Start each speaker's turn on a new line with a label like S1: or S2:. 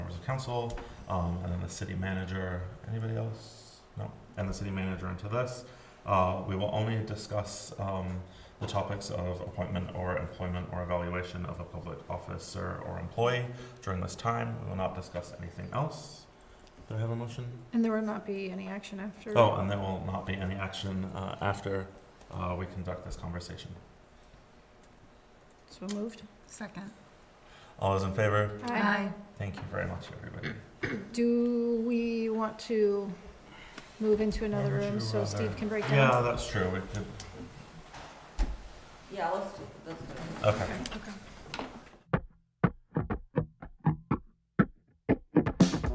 S1: council, um, and then the city manager, anybody else? No, and the city manager into this. Uh, we will only discuss, um, the topics of appointment or employment or evaluation of a public officer or employee during this time. We will not discuss anything else. Do I have a motion?
S2: And there will not be any action
S3: Mm.
S2: after.
S1: Oh, and there will not be any action, uh, after, uh, we conduct this conversation.
S2: So moved.
S3: Second.
S1: All those in favor?
S2: Aye.
S1: Thank you very much, everybody.
S2: Do we want to move into another
S1: would
S2: room
S1: you
S2: so Steve
S1: rather?
S2: can break
S1: Yeah,
S2: down?
S1: that's true. We could,
S3: Yeah, let's do, let's do
S1: okay.
S2: Okay.